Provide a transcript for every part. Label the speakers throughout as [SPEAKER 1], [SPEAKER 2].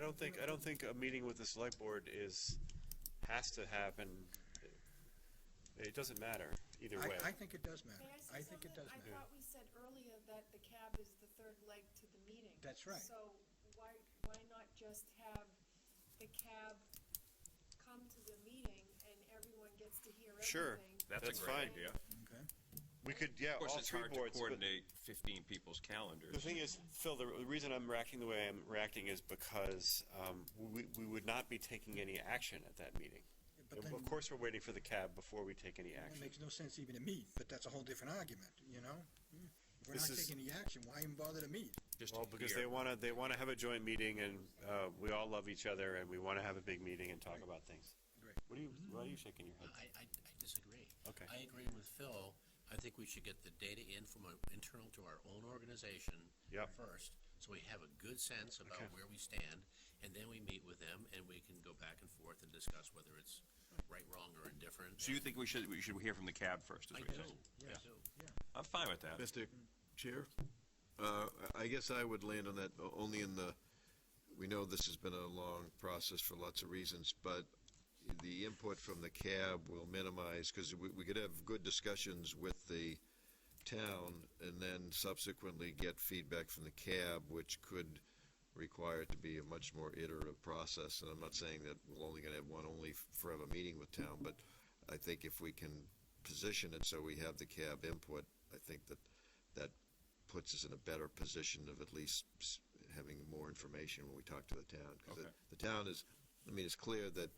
[SPEAKER 1] don't think, I don't think a meeting with the select board is, has to happen. It doesn't matter either way.
[SPEAKER 2] I, I think it does matter.
[SPEAKER 3] May
[SPEAKER 2] I
[SPEAKER 3] I say
[SPEAKER 2] think it does
[SPEAKER 3] something? I
[SPEAKER 2] matter.
[SPEAKER 3] thought we said earlier that the cab is the third leg to the meeting.
[SPEAKER 2] That's right.
[SPEAKER 3] So why, why not just have the cab come to the meeting and everyone gets to hear
[SPEAKER 1] Sure,
[SPEAKER 3] everything?
[SPEAKER 4] That's a
[SPEAKER 1] that's fine.
[SPEAKER 4] great idea.
[SPEAKER 2] Okay.
[SPEAKER 1] We could, yeah,
[SPEAKER 4] Of course,
[SPEAKER 1] all
[SPEAKER 4] it's
[SPEAKER 1] three
[SPEAKER 4] hard to
[SPEAKER 1] boards, but
[SPEAKER 4] coordinate fifteen people's
[SPEAKER 1] the
[SPEAKER 4] calendars.
[SPEAKER 1] thing is, Phil, the the reason I'm reacting the way I'm reacting is because, um, we, we would not be taking any action at that meeting.
[SPEAKER 2] But then,
[SPEAKER 1] Of course, we're waiting for the cab before we take
[SPEAKER 2] it
[SPEAKER 1] any action.
[SPEAKER 2] makes no sense even to meet, but that's a whole different argument, you know? Hmm. If we're not
[SPEAKER 1] This is-
[SPEAKER 2] taking the action, why even bother to meet?
[SPEAKER 4] Just
[SPEAKER 1] Well, because
[SPEAKER 4] here.
[SPEAKER 1] they want to, they want to have a joint meeting and, uh, we all love each other and we want to have a big meeting and talk about things.
[SPEAKER 2] Great.
[SPEAKER 1] What are you, why are you shaking your head?
[SPEAKER 5] I, I, I disagree.
[SPEAKER 1] Okay.
[SPEAKER 5] I agree with Phil. I think we should get the data in from our- internal to our own organization.
[SPEAKER 1] Yep.
[SPEAKER 5] First, so we have a good sense
[SPEAKER 1] Okay.
[SPEAKER 5] about where we stand, and then we meet with them, and we can go back and forth and discuss whether it's right, wrong, or indifferent.
[SPEAKER 4] So you think we should, we should hear from the cab first, is what
[SPEAKER 5] I do,
[SPEAKER 4] you're saying?
[SPEAKER 5] I
[SPEAKER 2] Yeah.
[SPEAKER 5] do.
[SPEAKER 4] I'm fine with that.
[SPEAKER 6] Mr. Chair, uh, I I guess I would land on that o- only in the, we know this has been a long process for lots of reasons, but the input from the cab will minimize, because we, we could have good discussions with the town and then subsequently get feedback from the cab, which could require it to be a much more iterative process. And I'm not saying that we're only gonna have one only forever meeting with town, but I think if we can position it so we have the cab input, I think that that puts us in a better position of at least s- having more information when we talk to the town. 'Cause
[SPEAKER 4] Okay.
[SPEAKER 6] the, the town is, I mean, it's clear that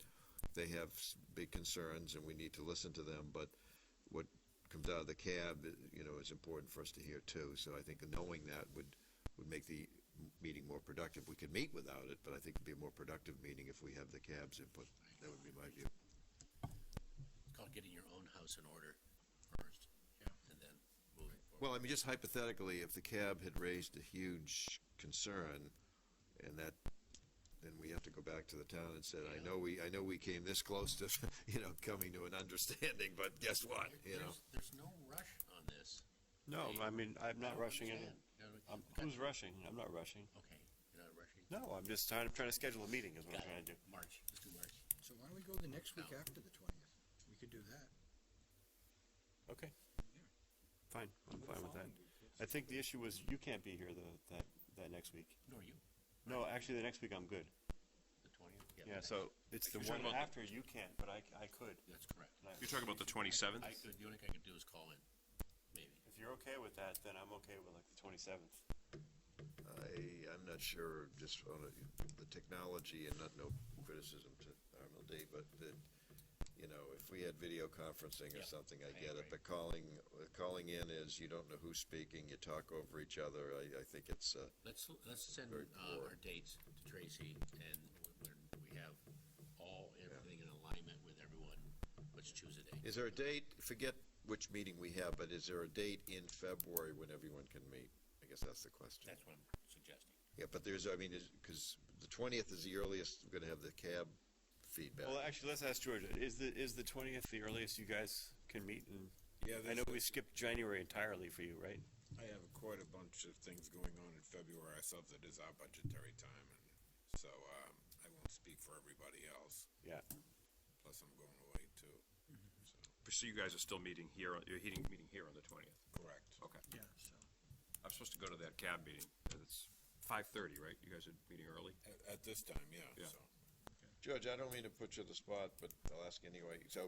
[SPEAKER 6] they have s- big concerns and we need to listen to them, but what comes out of the cab, uh, you know, is important for us to hear too. So I think knowing that would, would make the m- meeting more productive. We could meet without it, but I think it'd be a more productive meeting if we have the cab's input. That would be my view.
[SPEAKER 5] It's called getting your own house in order first, and then moving forward.
[SPEAKER 6] Well, I mean, just hypothetically, if the cab had raised a huge concern, and that, then we have to go back to the town and said, I know we, I know we came this close to, you know, coming to an understanding, but guess what,
[SPEAKER 5] There-
[SPEAKER 6] you know?
[SPEAKER 5] there's- There's no rush on this.
[SPEAKER 1] No, I mean, I'm not rushing it.
[SPEAKER 5] Understand. No, no,
[SPEAKER 1] I'm,
[SPEAKER 5] you've got-
[SPEAKER 1] who's rushing? I'm not rushing.
[SPEAKER 5] Okay, you're not rushing.
[SPEAKER 1] No, I'm just trying, I'm trying to schedule a meeting is what I'm
[SPEAKER 5] Got
[SPEAKER 1] trying to do.
[SPEAKER 5] it. March, let's do March.
[SPEAKER 2] So why don't we go the next week
[SPEAKER 5] No.
[SPEAKER 2] after the twentieth? We could do that.
[SPEAKER 1] Okay. Fine, I'm fine with that. I think the issue was you can't be here the, that, that next week.
[SPEAKER 5] Nor you,
[SPEAKER 1] No, actually, the next week I'm good.
[SPEAKER 5] the twentieth?
[SPEAKER 1] Yeah, so it's the
[SPEAKER 4] You're talking
[SPEAKER 1] one
[SPEAKER 4] about
[SPEAKER 1] after you can't, but I, I could.
[SPEAKER 5] That's correct.
[SPEAKER 1] And I-
[SPEAKER 4] You're talking about the twenty-seventh?
[SPEAKER 5] I could, the only thing I could do is call in, maybe.
[SPEAKER 1] If you're okay with that, then I'm okay with like the twenty-seventh.
[SPEAKER 6] I, I'm not sure, just on a- the technology and not no criticism to RMLD, but that, you know, if we had video conferencing or
[SPEAKER 5] Yeah,
[SPEAKER 6] something, I
[SPEAKER 5] I
[SPEAKER 6] get it,
[SPEAKER 5] agree.
[SPEAKER 6] but calling, calling in is, you don't know who's speaking, you talk over each other, I, I think it's, uh,
[SPEAKER 5] Let's, let's send
[SPEAKER 6] Very
[SPEAKER 5] uh,
[SPEAKER 6] poor.
[SPEAKER 5] our dates to Tracy, and when we have all, everything in alignment with everyone, let's choose a date.
[SPEAKER 6] Is there a date, forget which meeting we have, but is there a date in February when everyone can meet? I guess that's the question.
[SPEAKER 5] That's what I'm suggesting.
[SPEAKER 6] Yeah, but there's, I mean, because the twentieth is the earliest we're gonna have the cab feedback.
[SPEAKER 1] Well, actually, let's ask George, is the, is the twentieth the earliest you guys can meet? And
[SPEAKER 7] Yeah,
[SPEAKER 1] I know
[SPEAKER 7] there's-
[SPEAKER 1] we skipped January entirely for you, right?
[SPEAKER 7] I have quite a bunch of things going on in February. I thought that is our budgetary time, and so um, I won't speak for everybody else.
[SPEAKER 1] Yeah.
[SPEAKER 7] Plus, I'm going away too. So,
[SPEAKER 4] So you guys are still meeting here, on- you're heating, meeting here on the twentieth?
[SPEAKER 7] correct.
[SPEAKER 4] Okay.
[SPEAKER 2] Yeah, so.
[SPEAKER 4] I'm supposed to go to that cab meeting. It's five-thirty, right? You guys are meeting early?
[SPEAKER 7] At, at this time, yeah.
[SPEAKER 4] Yeah.
[SPEAKER 7] So
[SPEAKER 6] George, I don't mean to put you on the spot, but I'll ask anyway, so,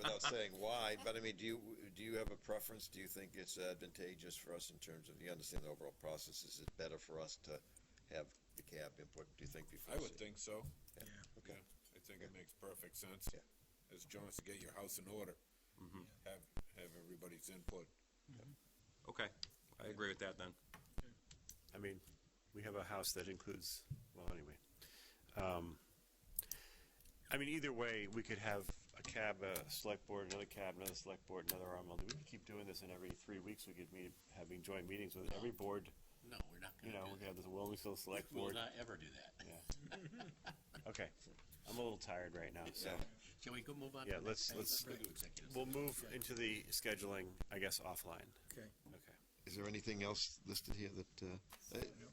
[SPEAKER 6] without saying why, but I mean, do you, do you have a preference? Do you think it's advantageous for us in terms of, you understand the overall process, is it better for us to have the cab input, do you think, before?
[SPEAKER 7] I would
[SPEAKER 6] se-
[SPEAKER 7] think so.
[SPEAKER 2] Yeah.
[SPEAKER 6] Okay.
[SPEAKER 7] Yeah, I think it makes perfect sense.
[SPEAKER 6] Yeah.
[SPEAKER 7] As John said, get your house in order. Have have everybody's input.
[SPEAKER 4] Okay, I agree with that then.
[SPEAKER 1] I mean, we have a house that includes, well, anyway. Um, I mean, either way, we could have a cab, a select board, another cab, another select board, another RMLD. We could keep doing this and every three weeks we could meet, having joint meetings with every board,
[SPEAKER 5] No, we're not
[SPEAKER 1] you
[SPEAKER 5] gonna
[SPEAKER 1] know,
[SPEAKER 5] do
[SPEAKER 1] we could
[SPEAKER 5] that.
[SPEAKER 1] have the Wilmington Select
[SPEAKER 5] We'll
[SPEAKER 1] Board.
[SPEAKER 5] not ever do that.
[SPEAKER 1] Okay, I'm a little tired right now, so
[SPEAKER 5] Shall we go move on? to
[SPEAKER 1] Yeah,
[SPEAKER 5] the
[SPEAKER 1] let's-
[SPEAKER 5] next thing?
[SPEAKER 1] let's-
[SPEAKER 5] go to executive
[SPEAKER 1] we'll move into the scheduling, I guess, offline.
[SPEAKER 2] Okay.
[SPEAKER 1] Okay.
[SPEAKER 6] Is there anything else listed here that, uh, uh,
[SPEAKER 3] uh,